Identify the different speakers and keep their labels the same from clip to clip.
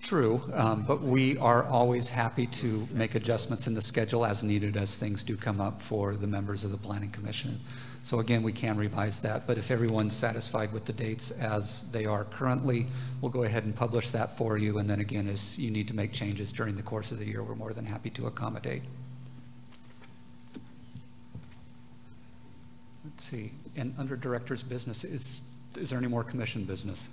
Speaker 1: true, um, but we are always happy to make adjustments in the schedule as needed as things do come up for the members of the planning commission. So again, we can revise that, but if everyone's satisfied with the dates as they are currently, we'll go ahead and publish that for you. And then again, as you need to make changes during the course of the year, we're more than happy to accommodate. Let's see, and under Director's Business, is, is there any more commission business?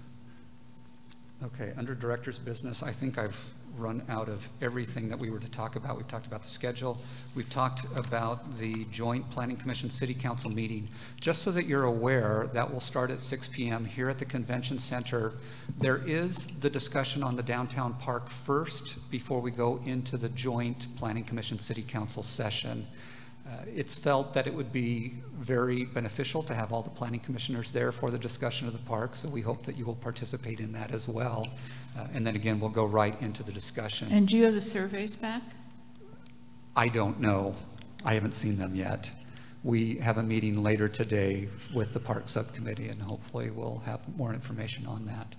Speaker 1: Okay, under Director's Business, I think I've run out of everything that we were to talk about. We've talked about the schedule. We've talked about the joint Planning Commission City Council meeting. Just so that you're aware, that will start at 6 PM here at the Convention Center. There is the discussion on the downtown park first before we go into the joint Planning Commission City Council session. Uh, It's felt that it would be very beneficial to have all the planning commissioners there for the discussion of the park, so we hope that you will participate in that as well. Uh, And then again, we'll go right into the discussion.
Speaker 2: And do you have the surveys back?
Speaker 1: I don't know. I haven't seen them yet. We have a meeting later today with the Park Subcommittee, and hopefully we'll have more information on that.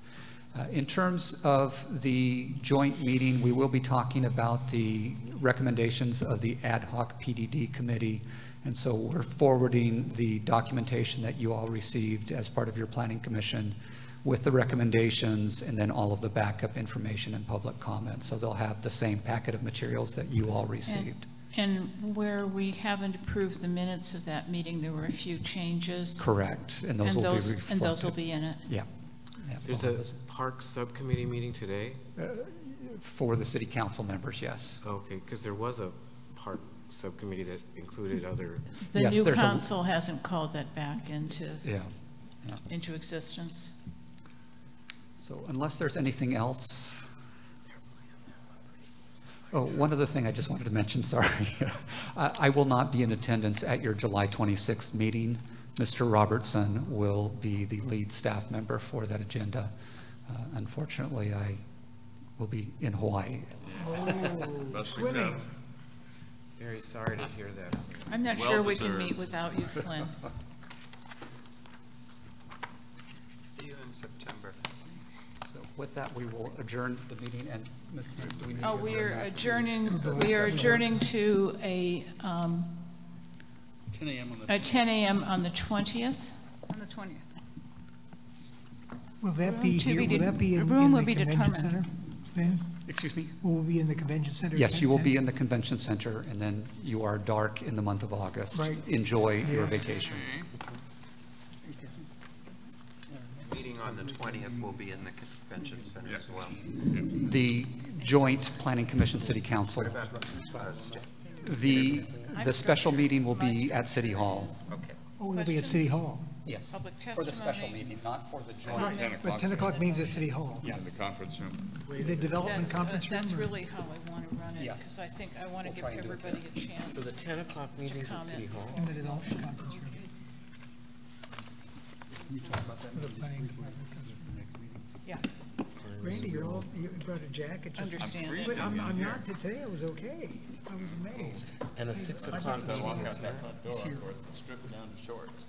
Speaker 1: Uh, In terms of the joint meeting, we will be talking about the recommendations of the ad hoc PDD committee. And so we're forwarding the documentation that you all received as part of your planning commission with the recommendations and then all of the backup information and public comments. So they'll have the same packet of materials that you all received.
Speaker 2: And where we haven't approved the minutes of that meeting, there were a few changes.
Speaker 1: Correct, and those
Speaker 2: And
Speaker 1: will be
Speaker 2: those- And those will
Speaker 1: reflected.
Speaker 2: be in it.
Speaker 1: Yeah. Yeah,
Speaker 3: There's
Speaker 1: all
Speaker 3: a
Speaker 1: of those.
Speaker 3: park subcommittee meeting today?
Speaker 1: For the city council members, yes.
Speaker 3: Oh, Okay, because there was a park subcommittee that included other,
Speaker 2: The
Speaker 1: Yes,
Speaker 2: new
Speaker 1: there's a-
Speaker 2: council hasn't called that back into,
Speaker 1: Yeah. yeah.
Speaker 2: into existence.
Speaker 1: So unless there's anything else. Oh, one other thing I just wanted to mention, sorry. I I will not be in attendance at your July 26th meeting. Mr. Robertson will be the lead staff member for that agenda. Uh, Unfortunately, I will be in Hawaii.
Speaker 2: Oh.
Speaker 4: Best we can.
Speaker 3: very sorry to hear that.
Speaker 2: I'm not sure we can
Speaker 4: Well-deserved.
Speaker 2: meet without you, Flynn.
Speaker 5: See you in September.
Speaker 1: So with that, we will adjourn the meeting, and Ms. Smith, do we need to
Speaker 2: Oh,
Speaker 1: adjourn?
Speaker 2: we are
Speaker 1: that?
Speaker 2: adjourning, we are adjourning to a, um,
Speaker 4: 10 a.m. on the
Speaker 2: a 10 AM on the 20th.
Speaker 6: On the 20th.
Speaker 7: Will that be
Speaker 6: Room to
Speaker 7: here,
Speaker 6: be
Speaker 7: will
Speaker 6: de-
Speaker 7: that be in
Speaker 6: the
Speaker 7: in
Speaker 6: room will
Speaker 7: the
Speaker 6: be
Speaker 7: convention
Speaker 6: determined.
Speaker 7: center? Then,
Speaker 1: Excuse me?
Speaker 7: will we be in the convention center?
Speaker 1: Yes,
Speaker 7: again
Speaker 1: you will
Speaker 7: then?
Speaker 1: be in the convention center, and then you are dark in the month of August.
Speaker 7: Right.
Speaker 1: Enjoy your
Speaker 7: Yes.
Speaker 1: vacation.
Speaker 5: Meeting on the 20th will be in the convention center as well.
Speaker 1: The joint Planning commission, city council,
Speaker 5: Uh, sta-
Speaker 1: the, the special meeting will be at City Hall.
Speaker 5: Okay.
Speaker 7: Oh, it'll be at City Hall.
Speaker 1: Yes.
Speaker 2: Public
Speaker 1: For the special
Speaker 2: testimony.
Speaker 1: meeting, not for the
Speaker 7: But
Speaker 1: joint.
Speaker 4: 10 o'clock.
Speaker 7: 10 o'clock means at City Hall.
Speaker 4: In the conference room.
Speaker 7: The development
Speaker 2: That's, uh,
Speaker 7: conference room?
Speaker 2: That's
Speaker 7: or-
Speaker 2: really how I want to run it, because
Speaker 1: Yes.
Speaker 2: I think I want to
Speaker 1: We'll
Speaker 2: give
Speaker 1: try and do it
Speaker 2: everybody a
Speaker 3: So the
Speaker 2: chance.
Speaker 3: 10 o'clock meeting's at City Hall?
Speaker 7: In the development conference room. The planning department.
Speaker 2: Yeah,
Speaker 7: Randy, you're all, you brought a jacket just.
Speaker 2: understand that.
Speaker 7: But I'm, I'm not, today I was okay. I was amazed.
Speaker 3: And the 6 o'clock meeting is here?
Speaker 4: Strip down to shorts.